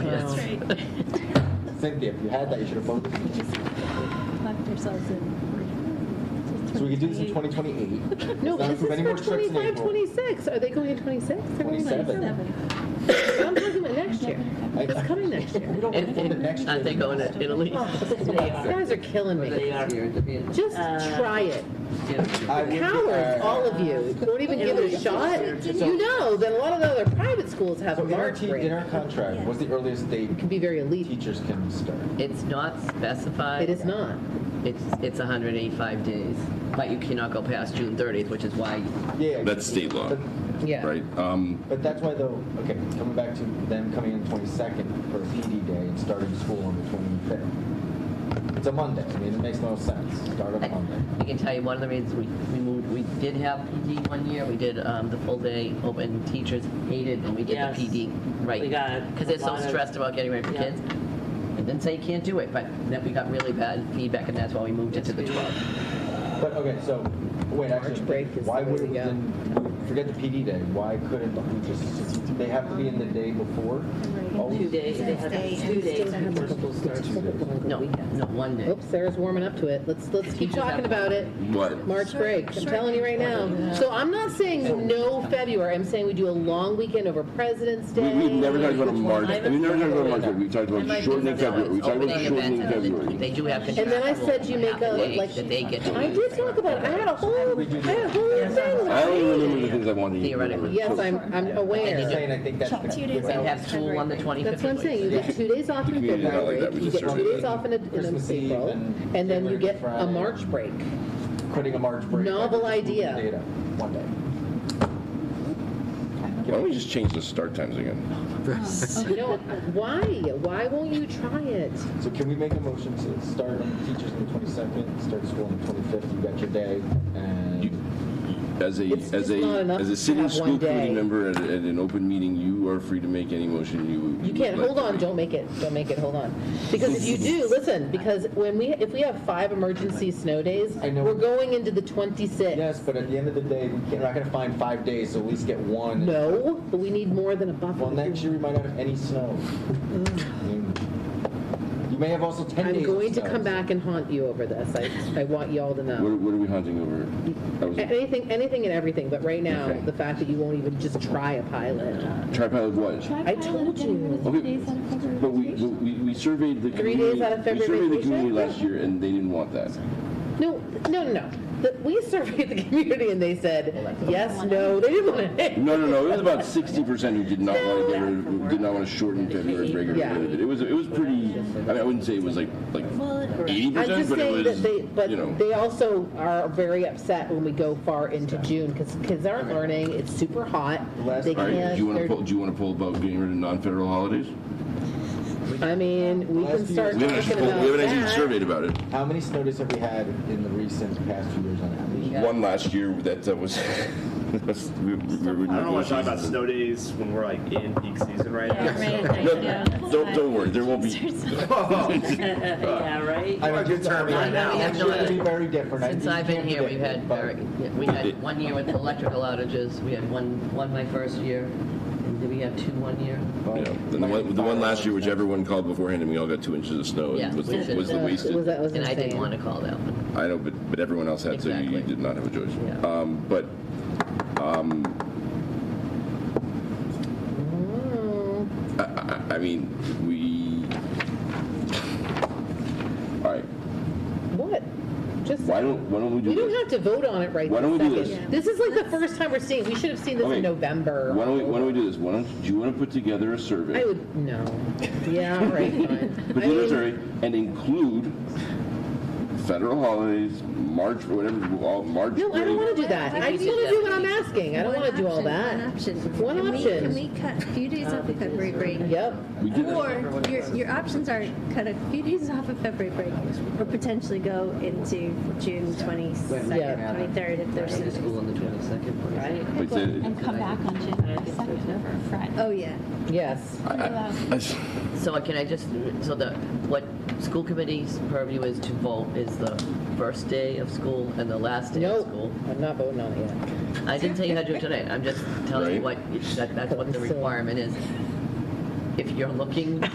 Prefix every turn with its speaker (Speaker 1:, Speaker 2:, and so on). Speaker 1: Oh.
Speaker 2: Cynthia, if you had that, you should have voted.
Speaker 3: just locked ourselves in.
Speaker 2: So we could do this in 2028.
Speaker 1: No,
Speaker 2: Let's
Speaker 1: but
Speaker 2: not
Speaker 1: this is
Speaker 2: approve any more
Speaker 1: for
Speaker 2: trips in
Speaker 1: 25,
Speaker 2: April.
Speaker 1: 26. Are they going in 26? They're going in
Speaker 2: 27.
Speaker 1: 27. I'm talking about next year.
Speaker 2: I-
Speaker 1: It's coming next year.
Speaker 2: We don't
Speaker 4: And-
Speaker 2: perform the
Speaker 4: and
Speaker 2: next year.
Speaker 4: Aren't they going to Italy?
Speaker 1: Oh, You guys are killing me.
Speaker 4: They are. Uh,
Speaker 1: Just try it.
Speaker 2: I would- uh,
Speaker 1: Cowards, all of you. Don't even give it a shot. You know that a lot of the other private schools have
Speaker 2: So
Speaker 1: a
Speaker 2: in our,
Speaker 1: March
Speaker 2: te-
Speaker 1: break.
Speaker 2: in our contract, what's the earliest date
Speaker 1: It can be very elite.
Speaker 2: teachers can start?
Speaker 4: It's not specified.
Speaker 1: It is not.
Speaker 4: It's, it's 185 days, but you cannot go past June 30th, which is why
Speaker 2: Yeah.
Speaker 5: That's state law.
Speaker 2: But,
Speaker 1: Yeah.
Speaker 5: Right? Um,
Speaker 2: but that's why though, okay, coming back to them coming in 22nd for PD day and starting school on the 25th. It's a Monday. I mean, it makes no sense. Start on Monday.
Speaker 4: I can tell you one of the reasons we, we moved, we did have PD one year, we did um, the full day open, teachers hated when we did
Speaker 6: Yes.
Speaker 4: the PD, right?
Speaker 6: We got
Speaker 4: Because they're
Speaker 6: a lot
Speaker 4: so
Speaker 6: of-
Speaker 4: stressed about getting ready for
Speaker 6: Yeah.
Speaker 4: kids. And then say you can't do it, but then we got really bad feedback and that's why we moved it to the
Speaker 6: Yes, we
Speaker 4: 12th.
Speaker 2: But okay, so wait,
Speaker 1: March
Speaker 2: actually,
Speaker 1: break is
Speaker 2: why
Speaker 1: the way
Speaker 2: would
Speaker 1: to
Speaker 2: we
Speaker 1: go.
Speaker 2: then forget the PD day? Why couldn't we just? They have to be in the day before.
Speaker 6: Two
Speaker 2: Always?
Speaker 6: days, they have two days before school starts.
Speaker 4: No, no, one day.
Speaker 1: Oops, Sarah's warming up to it. Let's, let's keep
Speaker 4: Teachers have-
Speaker 1: talking about it.
Speaker 5: what?
Speaker 1: March break. I'm telling you right now. So I'm not saying no February. I'm saying we do a long weekend over President's
Speaker 5: We,
Speaker 1: Day.
Speaker 5: we never talked about a March. I mean, we never talked about a March. break. We talked
Speaker 4: And like
Speaker 5: about shortening
Speaker 4: Lisa said,
Speaker 5: February. We
Speaker 4: it's
Speaker 5: talked about
Speaker 4: opening events,
Speaker 5: shortening
Speaker 4: and they-
Speaker 5: February.
Speaker 4: They do have.
Speaker 1: And then I said you make
Speaker 4: contractual
Speaker 1: a,
Speaker 4: days
Speaker 1: like-
Speaker 4: That they get
Speaker 1: I
Speaker 4: to,
Speaker 1: did talk about it. I had a whole, I had a whole thing.
Speaker 5: I
Speaker 1: about
Speaker 5: only
Speaker 1: it.
Speaker 5: remember the things I wanted to eat.
Speaker 4: Theoretically.
Speaker 1: Yes, I'm, I'm
Speaker 2: I'm just
Speaker 1: aware.
Speaker 2: saying, I think that's
Speaker 3: Chuck, two
Speaker 2: the,
Speaker 3: days
Speaker 4: they
Speaker 2: without
Speaker 4: have school on the 25th.
Speaker 1: That's what I'm saying. You get two days off in
Speaker 5: The community's not like
Speaker 1: February,
Speaker 5: that. We
Speaker 1: you
Speaker 5: just
Speaker 1: get two
Speaker 5: surveyed
Speaker 1: days off in, a- in
Speaker 2: Christmas Eve
Speaker 1: April,
Speaker 2: and
Speaker 1: and then you
Speaker 2: Labor Day
Speaker 1: get a
Speaker 2: Friday.
Speaker 1: March break.
Speaker 2: quitting a March break. I
Speaker 1: Novel
Speaker 2: think it's
Speaker 1: idea.
Speaker 2: Data one day.
Speaker 5: Why don't we just change the start times again?
Speaker 1: No, why? Why won't you try it?
Speaker 2: So can we make a motion to start on teachers on the 22nd, start school on the 25th? You got your day, and
Speaker 5: You- As a,
Speaker 1: It's
Speaker 5: as
Speaker 1: just not
Speaker 5: a,
Speaker 1: enough
Speaker 5: as a
Speaker 1: to
Speaker 5: city
Speaker 1: have one
Speaker 5: school committee
Speaker 1: day.
Speaker 5: member at, at an open meeting, you are free to make any motion you.
Speaker 1: You can't,
Speaker 5: would
Speaker 1: hold
Speaker 5: like
Speaker 1: on,
Speaker 5: to
Speaker 1: don't make it, don't make it, hold on. Because if you do, listen, because when we, if we have five emergency snow days,
Speaker 2: I know.
Speaker 1: we're going into the 26th.
Speaker 2: yes, but at the end of the day, we can't, we're not going to find five days, so at least get one.
Speaker 1: No, but we need more than a buffer.
Speaker 2: Well, next year we might not have any snow. I mean, You may have also 10 days.
Speaker 1: Mm. I'm
Speaker 2: of
Speaker 1: going to
Speaker 2: snow.
Speaker 1: come back and haunt you over this. I, I want you all to
Speaker 5: make. What,
Speaker 1: know.
Speaker 5: what are we hunting over? That was a
Speaker 1: Anything, anything and everything, but right now,
Speaker 5: Okay.
Speaker 1: the fact that you won't even just try a pilot.
Speaker 5: tripod of what?
Speaker 1: I told you.
Speaker 5: Okay, but we, but we, we surveyed the
Speaker 1: Three
Speaker 5: community.
Speaker 1: days out of February
Speaker 5: We surveyed the
Speaker 1: vacation?
Speaker 5: community last year and they didn't want that.
Speaker 1: No, no, no, no. The- We surveyed the community and they said, yes, no, they didn't want to.
Speaker 5: No, no, no. It was about sixty percent who did not want to get rid, of- did not want to shorten February break or get rid of it. It was, it was pretty. I mean, I wouldn't say it was like like eighty
Speaker 1: I'm
Speaker 5: percent,
Speaker 1: just
Speaker 5: but
Speaker 1: saying
Speaker 5: it
Speaker 1: that
Speaker 5: was.
Speaker 1: they, but
Speaker 5: you know,
Speaker 1: they also are very upset when we go far into June because kids aren't learning. It's super hot.
Speaker 2: Last-
Speaker 1: They
Speaker 5: all right. Do
Speaker 1: can't,
Speaker 5: you want to
Speaker 1: they're-
Speaker 5: pull? Do you want to pull about getting rid of non-federal holidays?
Speaker 1: I mean, we can
Speaker 2: Last few
Speaker 1: start
Speaker 5: We haven't
Speaker 1: talking
Speaker 5: actually, pulled, we haven't actually
Speaker 1: about
Speaker 5: surveyed about it.
Speaker 2: How many snow days have we had in the recent past few years on average?
Speaker 4: Yeah.
Speaker 5: One last year that that was. that's- we- we- we were
Speaker 7: I don't want to talk about
Speaker 5: negotiating.
Speaker 7: snow days when we're like in peak season right now. so-
Speaker 5: No, don't don't worry. There won't be.
Speaker 6: Yeah, right?
Speaker 2: I mean, just determined right now.
Speaker 4: No,
Speaker 2: Next
Speaker 4: no,
Speaker 2: year it'll be
Speaker 4: no.
Speaker 2: very different. I-
Speaker 4: Since
Speaker 2: you
Speaker 4: I've been
Speaker 2: can't
Speaker 4: here, we've
Speaker 2: predict it,
Speaker 4: had
Speaker 2: but
Speaker 4: very, we had one year with electrical outages, we had one, one my first year, and did we have two one year?
Speaker 5: Yeah. And the one, the one last year, which everyone called beforehand, and we all got two inches of snow,
Speaker 4: Yeah,
Speaker 5: and was the,
Speaker 4: which is-
Speaker 5: was the
Speaker 1: that.
Speaker 5: wasted.
Speaker 1: Was that was
Speaker 4: And I didn't
Speaker 1: insane.
Speaker 4: want to call that one.
Speaker 5: I know, but, but everyone else had, so you- you
Speaker 4: Exactly.
Speaker 5: did not have a choice.
Speaker 4: Yeah.
Speaker 5: Um, but
Speaker 1: Oh.
Speaker 5: I, I, I mean, we. All right.
Speaker 1: What? Just,
Speaker 5: Why don't Why don't we do
Speaker 1: we don't
Speaker 5: this?
Speaker 1: have to vote on it right
Speaker 5: Why don't
Speaker 1: this
Speaker 5: we do
Speaker 1: second. This is like the first time we're seeing, we should have seen this
Speaker 5: Okay.
Speaker 1: in November.
Speaker 5: Why don't we Why don't we do this? Why don't Do you want to put together a survey?
Speaker 1: I would, no. Yeah, all right, fine.
Speaker 5: Put
Speaker 1: I
Speaker 5: together a
Speaker 1: mean,
Speaker 5: survey and include federal holidays, March, whatever, all March.
Speaker 1: No, I don't
Speaker 5: break.
Speaker 1: want to do that. I just want to do what I'm asking. I don't want to do all that. One
Speaker 8: One option.
Speaker 1: option.
Speaker 8: Can we cut a few days off of February break?
Speaker 1: Yep.
Speaker 5: We did that.
Speaker 8: Or your, your options are cut a few days off of February break or potentially go into June 22nd,
Speaker 1: Yeah.
Speaker 8: 23rd if
Speaker 4: Back
Speaker 8: there's
Speaker 4: to school on the 22nd.
Speaker 6: Right?
Speaker 5: But then-
Speaker 3: And come back on January 2nd for Friday.
Speaker 8: Oh, yeah.
Speaker 1: Yes.
Speaker 5: I- I- I s-
Speaker 4: So uh, can I just, so the, what school committee's purview is to vote is the first day of school and the last day of
Speaker 1: No,
Speaker 4: school.
Speaker 1: I'm not voting on it yet.
Speaker 4: I didn't tell you how to do it tonight, I'm just telling you what,
Speaker 5: Right.
Speaker 4: that, that's what the requirement is. If you're looking